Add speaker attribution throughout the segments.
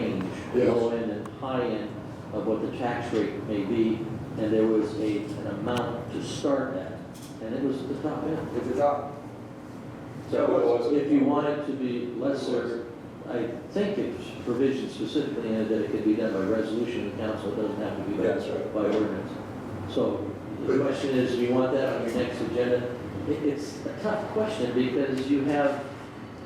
Speaker 1: the
Speaker 2: Yes.
Speaker 1: low end and high end of what the tax rate may be, and there was a, an amount to start at, and it was the top end.
Speaker 3: It's a top.
Speaker 1: So if you want it to be lesser, I think it's provision specifically in it that it can be done by resolution of council, it doesn't have to be
Speaker 3: That's right.
Speaker 1: by, by ordinance. So the
Speaker 2: But-
Speaker 1: question is, do you want that on your next agenda? It, it's a tough question because you have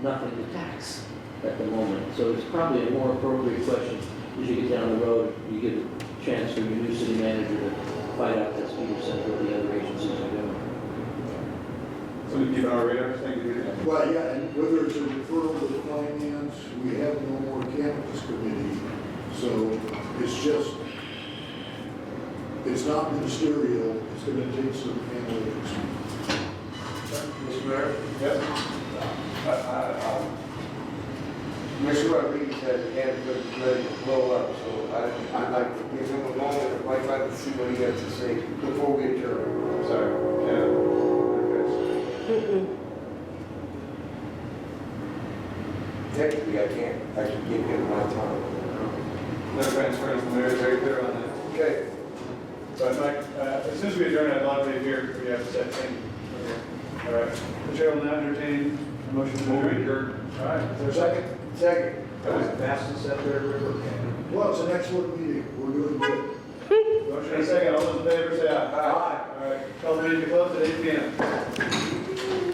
Speaker 1: nothing to tax at the moment. So it's probably a more appropriate question as you get down the road, you get a chance for your new city manager to find out that's Peter said what the other agencies are doing.
Speaker 4: So we keep on our radar, thank you for that.
Speaker 2: Well, yeah, and whether it's a referral to finance, we have no more cannabis committee, so it's just, it's not ministerial, it's gonna take some analytics.
Speaker 3: Mr. Mayor?
Speaker 4: Yes,
Speaker 3: I- I- I- Mr. Rodriguez has had the ready to blow up, so I- I'd like to give him a moment, I'd like to see what he has to say before we adjourn.
Speaker 4: I'm sorry. Yeah. Okay.
Speaker 3: Technically, I can't, I can give him my time.
Speaker 4: No transference from there, very clear on that.
Speaker 3: Okay,
Speaker 4: But Mike, uh, as soon as we adjourn, I'd love to hear what you have to say, thank you. All right, the chair will now entertain a motion to adjourn. All right.
Speaker 2: There's second,
Speaker 3: second.
Speaker 4: That was the fastest set there ever came.
Speaker 2: well, it's an excellent meeting, we're doing good.
Speaker 4: Motion and second, all those in favor say aye. Aye. All right, call the meeting to close at eight P M.